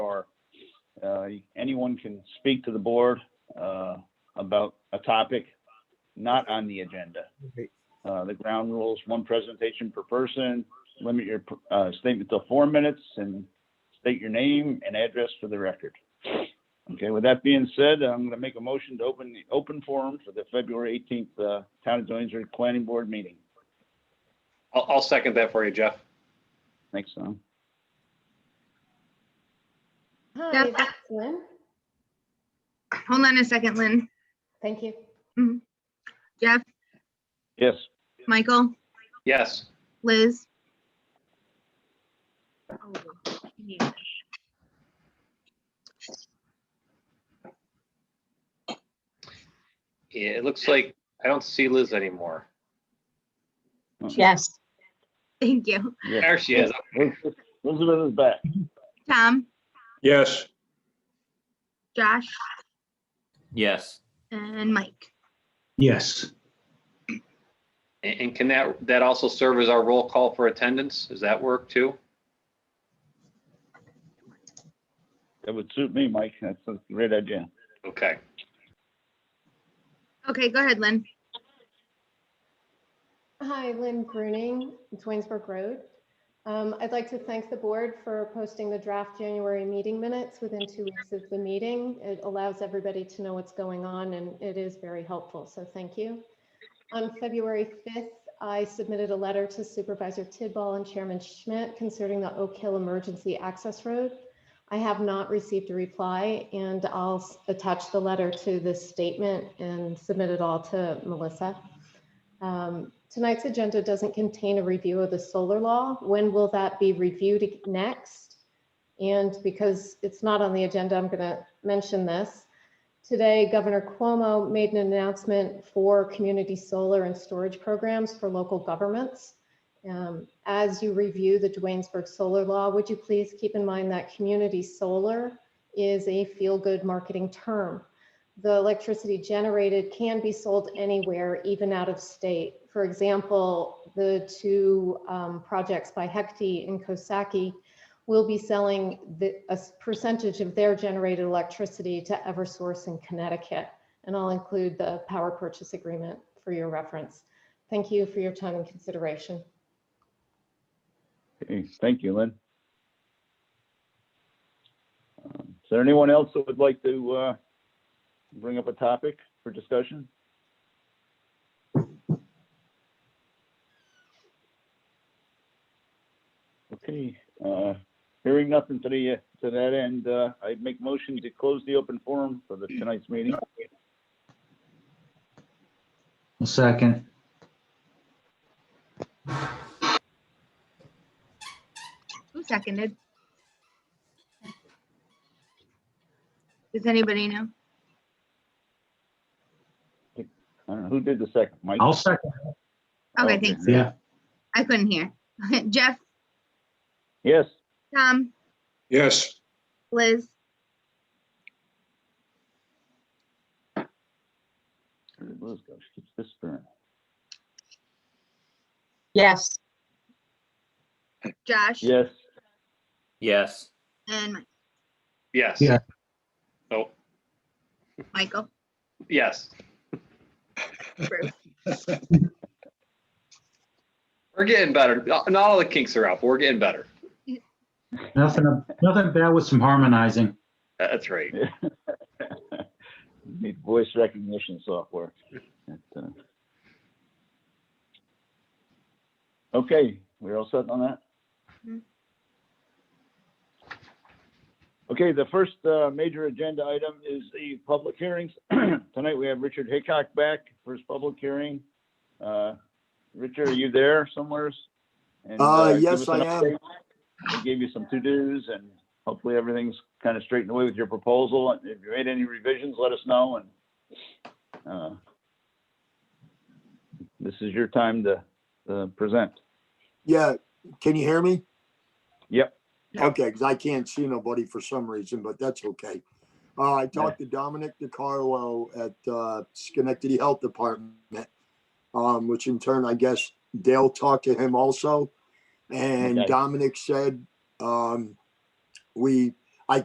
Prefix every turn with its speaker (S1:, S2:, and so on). S1: Uh, Anyone can speak to the board uh, about a topic not on the agenda. Uh, The ground rules, one presentation per person, limit your uh, statement to four minutes, and state your name and address for the record. Okay, with that being said, I'm going to make a motion to open the open forum for the February 18th uh, Town of Jonesboro Planning Board meeting.
S2: I'll, I'll second that for you, Jeff.
S1: Thanks, Tom.
S3: Hi,
S4: Jeff.
S3: that's Lynn.
S4: Hold on a second, Lynn.
S3: Thank you.
S4: Jeff,
S1: Yes,
S4: Michael,
S2: Yes,
S4: Liz.
S2: Yeah, it looks like I don't see Liz anymore.
S5: Yes,
S4: Thank you.
S1: yes.
S2: There she is.
S1: Elizabeth is back.
S4: Tom,
S6: Yes.
S4: Josh,
S7: Yes.
S4: and Mike.
S6: Yes.
S2: And and can that, that also serve as our roll call for attendance? Does that work too?
S1: That would suit me, Mike. That's a great idea.
S2: Okay.
S4: Okay, go ahead, Lynn.
S3: Hi, Lynn Bruning, Twinsburg Road. Um, I'd like to thank the board for posting the draft January meeting minutes within two weeks of the meeting. It allows everybody to know what's going on and it is very helpful, so thank you. On February 5th, I submitted a letter to Supervisor Tidball and Chairman Schmidt concerning the Oak Hill Emergency Access Road. I have not received a reply and I'll s- attach the letter to this statement and submit it all to Melissa. Um, Tonight's agenda doesn't contain a review of the solar law. When will that be reviewed ag- next? And because it's not on the agenda, I'm going to mention this. Today, Governor Cuomo made an announcement for community solar and storage programs for local governments. Um, As you review the Duanesburg solar law, would you please keep in mind that community solar is a feel-good marketing term? the electricity generated can be sold anywhere, even out of state. For example, the two um, projects by Hecti and Kosaki will be selling the, a s- percentage of their generated electricity to Eversource in Connecticut. And I'll include the power purchase agreement for your reference. Thank you for your time and consideration.
S1: Okay, Thank you, Lynn. Um, Is there anyone else that would like to uh, bring up a topic for discussion? Okay, uh, hearing nothing to the, to that end, uh, I make motion to close the open forum for the tonight's meeting.
S6: A second.
S4: Who seconded? Does anybody know?
S1: I don't know, who did the second? Mike?
S6: I'll second.
S4: Okay, thanks.
S6: Yeah.
S4: I couldn't hear. Jeff,
S1: Yes,
S4: Tom,
S6: Yes.
S4: Liz,
S1: where did Liz go? She keeps disappearing.
S5: yes,
S4: Josh,
S1: Yes,
S7: Yes.
S4: and Mi-
S2: Yes.
S6: Yeah.
S2: Oh,
S4: Michael.
S2: yes.
S4: Approved.
S2: We're getting better. Not not all the kinks are out, but we're getting better.
S6: Nothing, nothing bad with some harmonizing.
S2: That's right.
S1: need voice recognition software. That, uh, Okay, we're all set on that?
S4: Mhm.
S1: Okay, the first uh, major agenda item is the public hearings. Tonight, we have Richard Hickok back for his public hearing. Uh, Richard, are you there somewheres? And,
S8: Uh,
S1: give
S8: yes,
S1: us an
S8: I am.
S1: update. I gave you some to-dos and hopefully everything's kind of straightened away with your proposal. And If you made any revisions, let us know and, uh, this is your time to, uh, present.
S8: Yeah, can you hear me?
S1: Yep.
S8: Okay, because I can't see nobody for some reason, but that's okay. Uh, I talked to Dominic DiCarlo at uh, Schenectady Health Department, um, which in turn, I guess Dale talked to him also. And
S1: Okay.
S8: Dominic said, um, we